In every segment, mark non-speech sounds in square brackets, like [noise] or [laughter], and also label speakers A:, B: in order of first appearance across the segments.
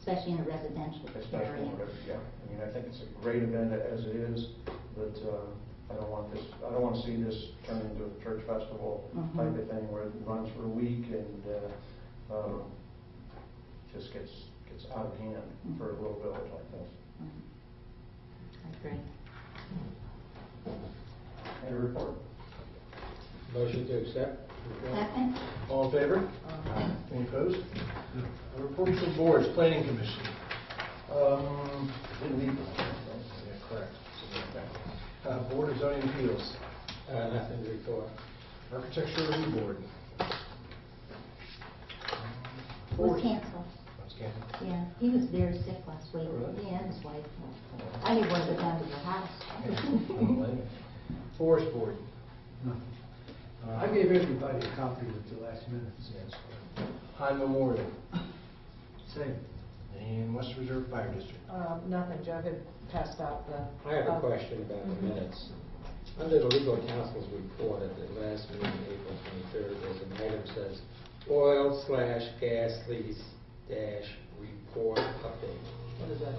A: especially in a residential
B: especially,
A: area.
B: in River- yeah. I mean, I think it's a great event as it is, but uh, I don't want this, I don't want to see this turn into a church festival
A: Mhm.
B: type of thing where it runs for a week and uh, um, just gets, gets out of hand for a little village like this.
A: Mm-hmm. I agree.
B: Any report?
C: Motion to accept.
A: Second?
C: All in favor?
D: Uh,
A: Aye.
C: Any opposed? A Report from boards, planning commission.
B: Um, did we,
C: Yeah, correct. Uh, Board of zoning appeals.
E: Uh,
C: Nothing to report. Architecture review
E: [laughs]
C: board.
A: Was canceled.
C: That's good.
A: Yeah, he was very sick last week.
C: Oh, really?
A: Yeah, his wife. I didn't want to go down to your house.
C: Forest board. Uh,
F: I gave everybody a copy of the last minutes.
C: yes. High Memorial
F: Same.
C: and West Reserve Fire District.
D: Um, Nothing, Joe had passed out the...
E: I have a
D: uh,
E: question about the minutes. Under the legal counsel's report at the last meeting, April 23rd, there's an item says oil slash gas lease dash report update. What is that?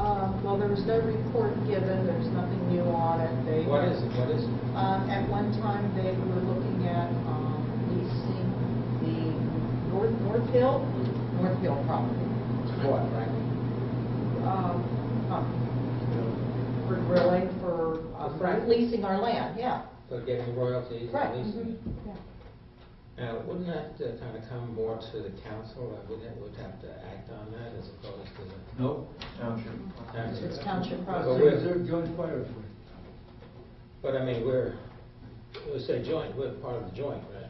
D: Um, Well, there was no report given, there's nothing new on it. They-
E: What is it, what is it?
D: Um, At one time, they were looking at um, leasing the North North Hill, North Hill property.
E: What, right?
D: Um, um, For drilling, for um, leasing our land, yeah.
E: For getting royalties
D: Right,
E: and leasing?
D: mhm, yeah.
E: Now, Uh, wouldn't that kind of come more to the council, and wouldn't it, would have to act on that as opposed to the
F: No. Uh,
B: township,
E: council?
D: It's township
E: But
D: property.
E: we're-
F: Reserve joint fire authority.
E: But I mean, we're, we say joint, we're part of the joint, right?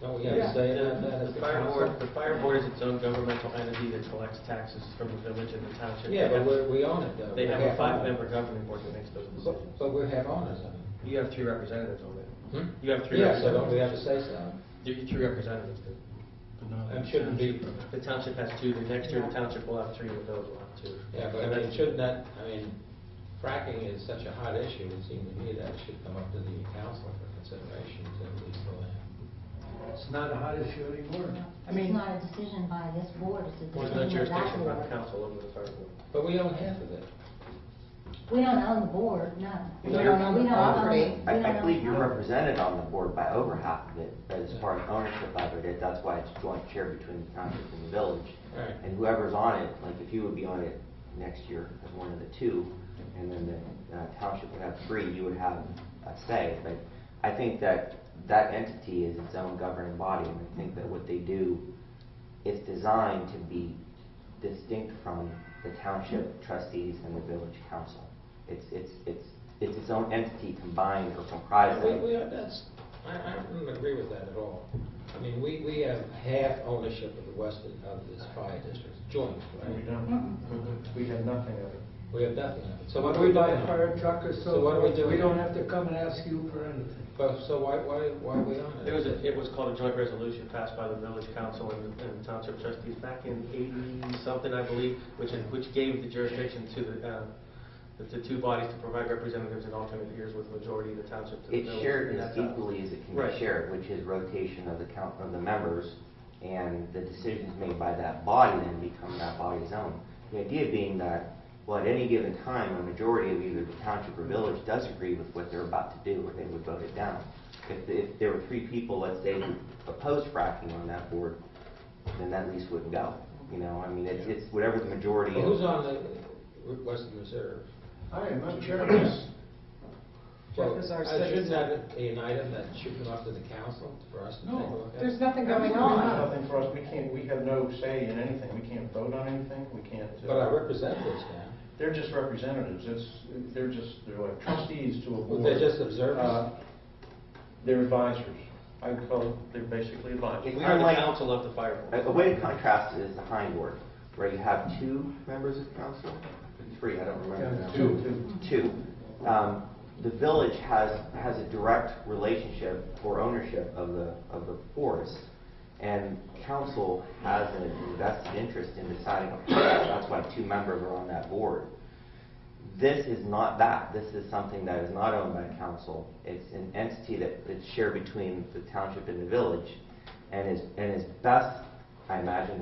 E: Don't we have to
D: Yeah.
E: say that, that
G: The
E: as the
G: fire
E: council?
G: board, the fire board is its own governmental entity that collects taxes from the village and the township.
E: Yeah,
G: They
E: but
G: have-
E: we, we own it though.
G: They
E: We
G: have a
E: owners.
G: five-member governing board that makes those decisions.
E: But, but we have owners on it.
G: You have three representatives on it.
E: Hmm?
G: You have three
E: Yeah, so don't we
G: representatives.
E: have to say so?
G: You have three representatives. do.
E: It shouldn't be,
G: The township has two, the next year the township will have three, and the village will have two.
E: yeah, but I mean,
G: And that's-
E: shouldn't that, I mean, fracking is such a hot issue, it seems to me that it should come up to the council for consideration to lease the land.
F: It's not a hot issue anymore.
D: I
A: [laughs] It's
D: mean-
A: not a decision by this board, it's a
G: There's
A: decision of
G: no
A: that
G: jurisdiction by the
A: board.
G: council over the fire board.
E: But we own half of it.
A: We don't own the board, no.
D: We don't own the
A: We
D: property.
A: we
H: I,
A: don't
H: I
A: own
H: believe you're
A: the-
H: represented on the board by over half of it, but as far as ownership of it, that's why it's joint chair between the township and the village.
E: Right.
H: And whoever's on it, like if you would be on it next year as one of the two, and then the uh, township would have three, you would have a say. But I think that that entity is its own governing body, and I think that what they do is designed to be distinct from the township trustees and the village council. It's, it's, it's, it's its own entity combined or comprised
E: We,
H: of.
E: we, are- that's, I, I don't agree with that at all. I mean, we, we have half ownership of the western, of this fire district, joint,
B: and we
E: right?
B: don't, we have nothing of it.
E: We have nothing of it. So
F: When
E: what do we
F: we
E: do
F: buy a
E: now?
F: fire truck or
E: So what do
F: so,
E: we do?
F: we don't have to come and ask you for anything.
E: But, so why, why, why are we on it?
G: It was, a- it was called a joint resolution passed by the village council and and township trustees back in 80-something, I believe, which, which gave the jurisdiction to the, uh, the- the two bodies to provide representatives in alternate years with majority of the township to the
H: It's
G: village.
H: shared
G: And
H: as
G: that's-
H: equally as it can
G: Right.
H: be shared, which is rotation of the count, of the members, and the decisions made by that body then become that body's own. The idea being that, well, at any given time, a majority of either the township or village does agree with what they're about to do, or they would vote it down. If, if there were three people, let's say, who opposed fracking on that board, then that lease wouldn't go. You know, I mean, it's, it's whatever the majority
E: Well,
H: of.
E: Who's on the Western Reserve?
C: I am, I'm chairman.
F: [laughs]
D: Jeff is our
E: Well, uh, Shouldn't
D: citizen.
E: that be an item that should come up to the council for us to take
C: No.
E: a look at?
D: There's nothing going
B: We have
D: on.
B: Nothing for us, we can't, we have no say in anything, we can't vote on anything, we can't. uh,
E: But our representatives now,
B: They're just representatives, it's, they're just, they're like trustees to a board.
E: they're just observers.
B: Uh, They're advisors. I would call, them- they're basically advisors.
H: It's
G: We are the
H: unlike- Uh,
G: council of the fire board.
H: A a way to contrast it is the hind board, where you have two members of council, three, I don't remember now.
C: Two.
H: Two. Um, The village has, has a direct relationship or ownership of the, of the forest, and council has an invested interest in deciding, on forest. that's why two members are on that board. This is not that, this is something that is not owned by council, it's an entity that, that's shared between the township and the village, and is, and is best, I imagine,